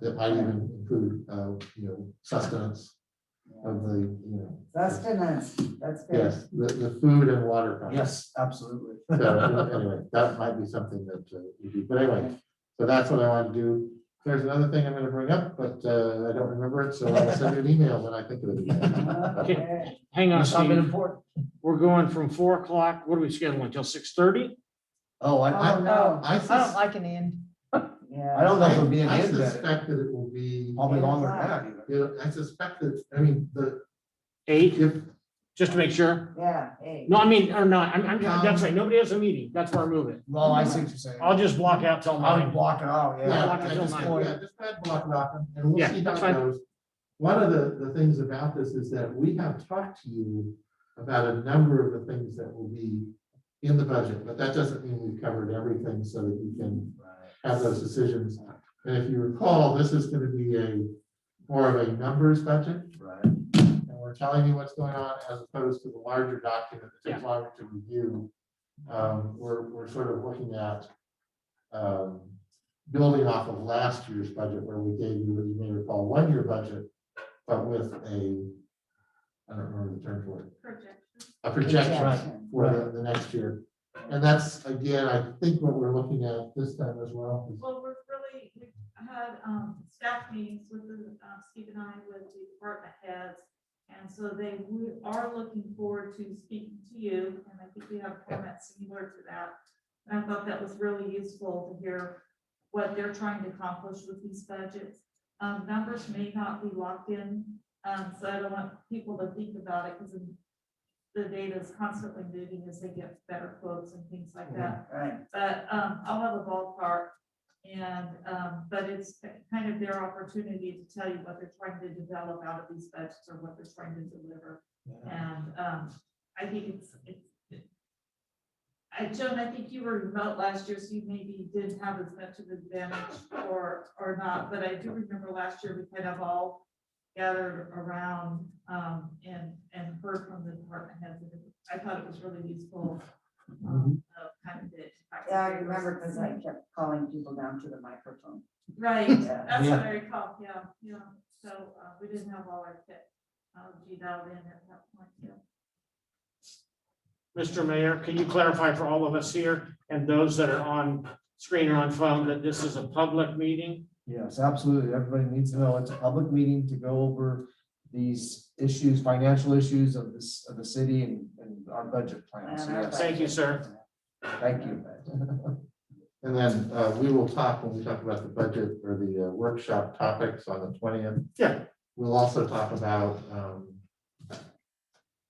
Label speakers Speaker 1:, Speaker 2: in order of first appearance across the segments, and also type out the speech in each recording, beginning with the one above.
Speaker 1: that might even include, uh, you know, sustenance of the, you know,
Speaker 2: Sustenance, that's good.
Speaker 1: yes, the, the food and water. content.
Speaker 3: Yes, absolutely.
Speaker 1: So anyway, that might be something that uh, we do, but anyway, so that's what I want to do. There's another thing I'm gonna bring up, but uh, I don't remember it, so I'll send you an email when I think of it.
Speaker 2: Okay.
Speaker 4: Hang on,
Speaker 3: There's Something
Speaker 4: Steve.
Speaker 3: important.
Speaker 4: We're going from four o'clock, what are we scheduling, until six thirty?
Speaker 3: Oh, I, I,
Speaker 2: Oh, no,
Speaker 1: I
Speaker 5: I don't
Speaker 1: sus-
Speaker 5: like an end.
Speaker 3: I
Speaker 2: yeah.
Speaker 3: don't know if it'll be an
Speaker 1: I
Speaker 3: end that,
Speaker 1: suspect that it will be,
Speaker 3: probably longer than that either.
Speaker 1: you know, I suspect that, I mean, the,
Speaker 4: Eight,
Speaker 1: if,
Speaker 4: just to make sure.
Speaker 2: Yeah, hey.
Speaker 4: No, I mean, or not, I'm, I'm, that's right, nobody has a meeting, that's where I move it.
Speaker 3: Well, I see what you're saying.
Speaker 4: I'll just block out till
Speaker 3: I'll
Speaker 4: nine.
Speaker 3: block it out,
Speaker 1: Yeah,
Speaker 3: yeah.
Speaker 4: block
Speaker 1: I
Speaker 4: it
Speaker 1: just,
Speaker 4: online.
Speaker 1: yeah, just add block knocking, and we'll
Speaker 4: Yeah,
Speaker 1: see how
Speaker 4: that's
Speaker 1: it
Speaker 4: fine.
Speaker 1: goes. One of the, the things about this is that we have talked to you about a number of the things that will be in the budget, but that doesn't mean we've covered everything so that you can have those decisions. And if you recall, this is gonna be a, more of a numbers budget,
Speaker 3: Right.
Speaker 1: and we're telling you what's going on as opposed to the larger document that takes longer to review. Um, we're, we're sort of looking at, um, building off of last year's budget where we gave you, you may recall, one year budget, but with a, I don't remember the term for it. A projection
Speaker 2: Projection.
Speaker 1: for the, the next year. And that's, again, I think what we're looking at this time as well. is-
Speaker 6: Well, we're really, we had um, staff meetings with the, uh, Steve and I with the department heads. And so they, we are looking forward to speaking to you, and I think we have comments similar to that. And I thought that was really useful to hear what they're trying to accomplish with these budgets. Um, Numbers may not be locked in, um, so I don't want people to think about it because the data is constantly moving as they get better quotes and things like that
Speaker 2: Right,
Speaker 6: but um, I'll have a ballpark. And, um, but it's kind of their opportunity to tell you what they're trying to develop out of these budgets or what they're trying to deliver. And um, I think it's, it's. I, Joan, I think you were remote last year, so you maybe didn't have as much of an advantage or, or not, but I do remember last year we kind of all gathered around um, and, and heard from the department heads. and I thought it was really useful. um, of Kind of the.
Speaker 2: yeah, I remember because I kept calling people down to the microphone.
Speaker 6: Right,
Speaker 2: Yeah.
Speaker 6: that's
Speaker 3: Yeah.
Speaker 6: what I recall, yeah, yeah, so, uh, we didn't have all our kit, uh, G-dialed in at that point, yeah.
Speaker 4: Mr. Mayor, can you clarify for all of us here and those that are on screen or on phone that this is a public meeting?
Speaker 3: Yes, absolutely. Everybody needs to know. It's a public meeting to go over these issues, financial issues of this, of the city and, and our budget plan. So,
Speaker 2: And our
Speaker 3: yes,
Speaker 4: Thank you, sir.
Speaker 3: thank you.
Speaker 1: And then, uh, we will talk when we talk about the budget or the uh, workshop topics on the twentieth.
Speaker 4: Yeah.
Speaker 1: We'll also talk about, um,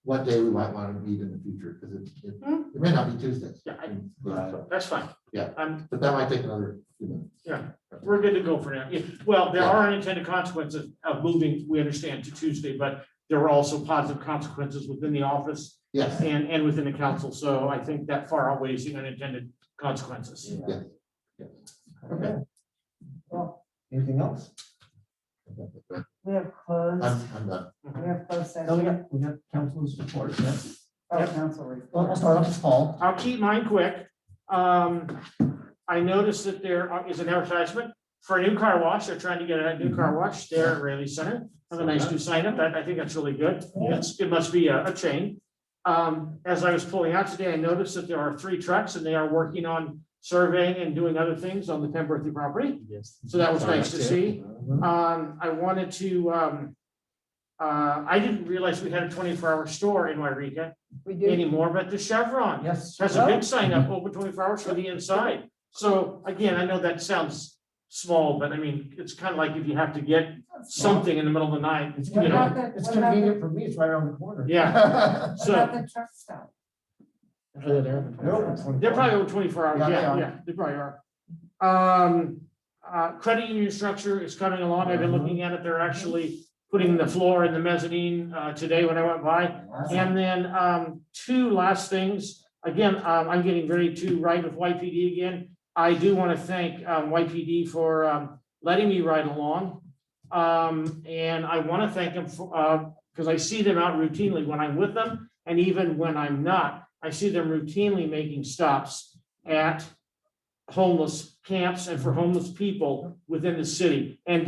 Speaker 1: what day we might want to meet in the future, because it, it, it may not be Tuesdays.
Speaker 4: Yeah, Hmm. I-
Speaker 1: But
Speaker 4: That's fine.
Speaker 1: Yeah.
Speaker 4: I'm,
Speaker 1: that might take another, few minutes.
Speaker 4: we're good to go for now. If- Well, there are unintended consequences of moving, we understand, to Tuesday, but there were also positive consequences within the office
Speaker 1: yes,
Speaker 4: and, and within the council, so I think that far outweighs the unintended consequences.
Speaker 1: Yeah. Yeah.
Speaker 3: Okay. Well, anything else?
Speaker 2: We have closed,
Speaker 1: I'm, I'm done.
Speaker 2: we have closed
Speaker 3: No, we
Speaker 2: session,
Speaker 3: got, we got council's report, yes.
Speaker 2: oh,
Speaker 4: Yep.
Speaker 2: council
Speaker 3: Well,
Speaker 2: report.
Speaker 3: I'll start off with Paul.
Speaker 4: I'll keep mine quick. Um, I noticed that there are- is an advertisement for a new car wash. They're trying to get a new car wash there at Raleigh Center. Have a nice new sign up. That, I think that's really good. It's, it must be a, a chain. Um, as I was pulling out today, I noticed that there are three trucks and they are working on surveying and doing other things on the Pemberthy property.
Speaker 3: Yes.
Speaker 4: So that was nice to see.
Speaker 3: Uh-huh.
Speaker 4: Um, I wanted to, um, uh, I didn't realize we had a twenty-four hour store in Wairika
Speaker 5: We do.
Speaker 4: anymore, but the Chevron
Speaker 3: Yes.
Speaker 4: has a big sign up, open twenty-four hours for the inside. So again, I know that sounds small, but I mean, it's kind of like if you have to get something in the middle of the night,
Speaker 3: It's
Speaker 4: you know.
Speaker 3: convenient, it's
Speaker 2: What about the-
Speaker 3: convenient for me, it's right around the corner.
Speaker 4: Yeah.
Speaker 2: What
Speaker 4: So
Speaker 2: about the truck stop?
Speaker 3: They're open 24.
Speaker 4: they're probably over twenty-four hours.
Speaker 3: Yeah, they
Speaker 4: Yeah,
Speaker 3: are.
Speaker 4: yeah, they probably are. Um, uh, credit union structure is coming along. I've been
Speaker 3: Uh-huh.
Speaker 4: looking at it. They're actually putting the floor in the mezzanine, uh, today when I went by. And then um, two last things. Again, um, I'm getting ready to ride with YPD again. I do want to thank um, YPD for um, letting me ride along. Um, And I want to thank them for, because I see them out routinely when I'm with them and even when I'm not. I see them routinely making stops at homeless camps and for homeless people within the city and